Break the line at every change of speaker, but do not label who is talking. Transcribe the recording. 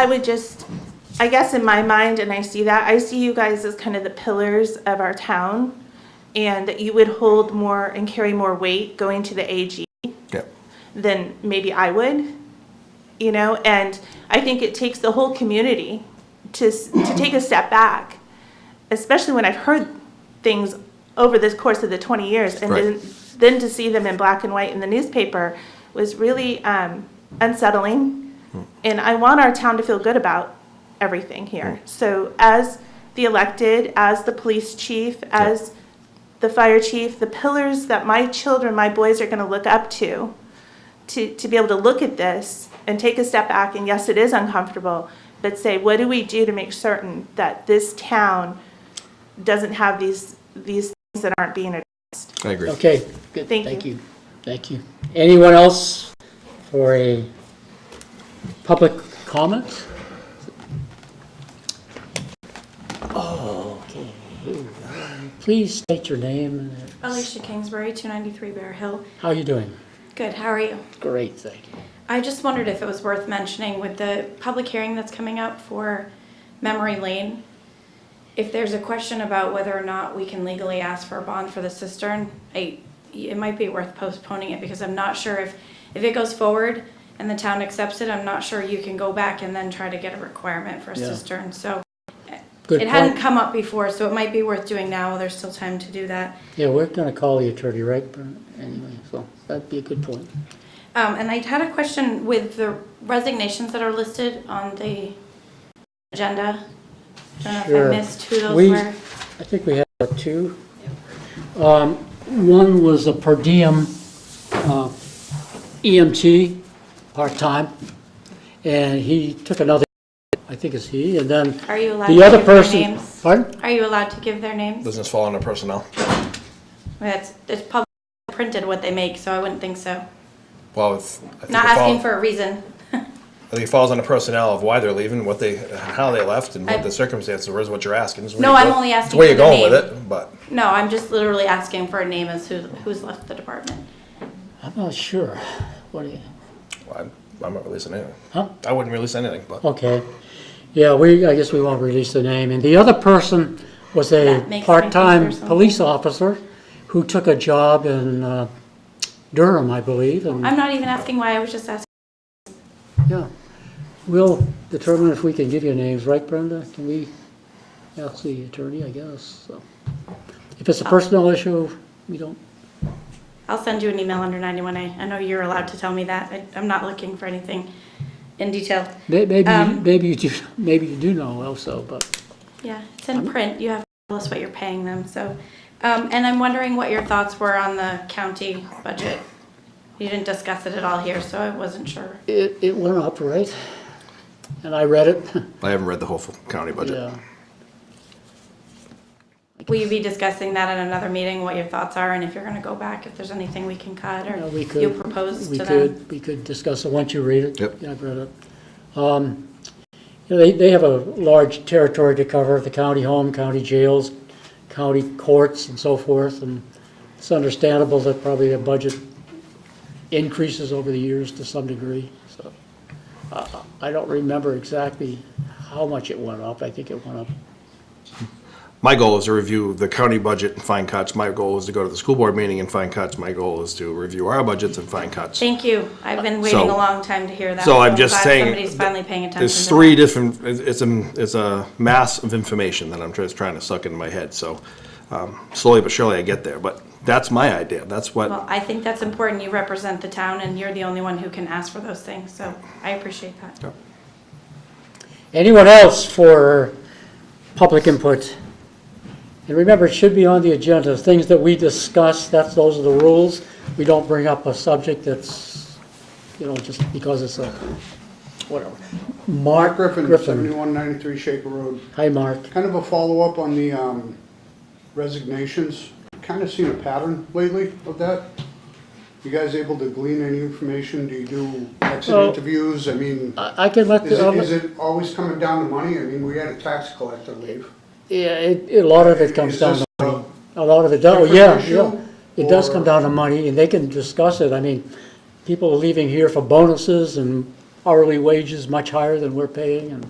I would just, I guess in my mind, and I see that, I see you guys as kind of the pillars of our town, and that you would hold more and carry more weight going to the AG
Yeah.
than maybe I would, you know? And I think it takes the whole community to, s- to take a step back, especially when I've heard things over this course of the 20 years. And
Right.
then, then to see them in black and white in the newspaper was really um, unsettling. And I want our town to feel good about everything here. So as the elected, as the police chief, as the fire chief, the pillars that my children, my boys are going to look up to, to, to be able to look at this and take a step back, and yes, it is uncomfortable, but say, what do we do to make certain that this town doesn't have these, these things that aren't being addressed?
I agree.
Okay, good,
Thank
thank
you.
you, thank you. Anyone else for a public comment? Oh, okay. Please state your name and
Alicia Kingsbury, 293 Bear Hill.
how are you doing?
Good, how are you?
Great, thank you.
I just wondered if it was worth mentioning with the public hearing that's coming up for Memory Lane, if there's a question about whether or not we can legally ask for a bond for the cistern, I, it might be worth postponing it because I'm not sure if, if it goes forward and the town accepts it, I'm not sure you can go back and then try to get a requirement for a
Yeah.
cistern, so.
Good
It hadn't
point.
come up before, so it might be worth doing now, there's still time to do that.
Yeah, we're gonna call the attorney, right, Bernard? anyway, so that'd be a good point.
Um, and I had a question with the resignations that are listed on the agenda. I don't know if I
Sure.
missed who those
We-
were.
I think we had uh, two. Um, One was a per diem uh, EMT, part-time, and he took another, I think it's he, and then
Are you allowed to
the other
give their
person.
names?
Pardon?
Are you allowed to give their names?
Doesn't this fall under personnel?
That's, it's public printed what they make, so I wouldn't think so.
Well, it's. I think
Not
it fall-
asking for a reason.
I think it falls under personnel of why they're leaving, what they, how they left and what
I-
the circumstances were is what you're asking. It's where
No,
you
I'm
go-
only
it's
asking for
where you're
the
going with
name.
it, but
No, I'm just literally asking for a name as who, who's left the department.
I'm not sure. What do you,
I'm, I'm not releasing anything.
huh?
I wouldn't release anything, but
Okay. Yeah, we, I guess we won't release the name. And the other person was a
That makes me
part-time
think there's
police officer who took a job in uh, Durham, I believe, and...
I'm not even asking why, I was just asking.
Yeah, we'll determine if we can give you names, right Brenda? Can we ask the attorney, I guess, so. If it's a personal issue, we don't,
I'll send you an email under 91A. I know you're allowed to tell me that. I- I'm not looking for anything in detail.
may- maybe,
Um,
maybe you do, maybe you do know also, but,
Yeah, it's in print. You have to tell us what you're paying them, so. Um, and I'm wondering what your thoughts were on the county budget. You didn't discuss it at all here, so I wasn't sure.
it, it went up, right? And I read it,
I haven't read the whole full county budget.
yeah.
Will you be discussing that at another meeting, what your thoughts are, and if you're gonna go back, if there's anything we can cut
Yeah,
or
we
you
could-
propose
We
to them?
could, we could discuss it once you read it.
Yep.
Yeah, I've read it. Um, you know, They, they have a large territory to cover, the county home, county jails, county courts and so forth. And it's understandable that probably their budget increases over the years to some degree, so. I- I I don't remember exactly how much it went up. I think it went up
My goal is to review the county budget and find cuts. My goal is to go to the school board meeting and find cuts. My goal is to review our budgets and find cuts.
Thank you. I've been waiting
So-
a long time to hear that.
So I'm just
glad
saying.
Somebody's finally paying attention.
There's
to
three
that.
different, it's it's a, it's a mass of information that I'm just trying to suck into my head, so um, slowly but surely I get there, but that's my idea, that's
Well,
what,
I think that's important. You represent the town and you're the only one who can ask for those things, so I appreciate that.
Anyone else for public input? And remember, it should be on the agenda, things that we discuss, that's, those are the rules. We don't bring up a subject that's, you know, just because it's a, whatever. Mark
Mark Griffin,
Griffin.
7193 Shaker Road.
Hi, Mark.
Kind of a follow-up on the um, resignations. Kind of seen a pattern lately of that. You guys able to glean any information? Do you do exit
Well-
interviews? I mean,
I I can let,
is
the-
it,
I'll let-
is it always coming down to money? I mean, we had a tax collector leave.
yeah, it- a lot of it comes
Is
down,
this
to
a-
a lot of it, does- oh,
different
yeah,
issue,
yeah. It does
or-
come down to money, and they can discuss it, I mean, people are leaving here for bonuses and hourly wages much higher than we're paying, and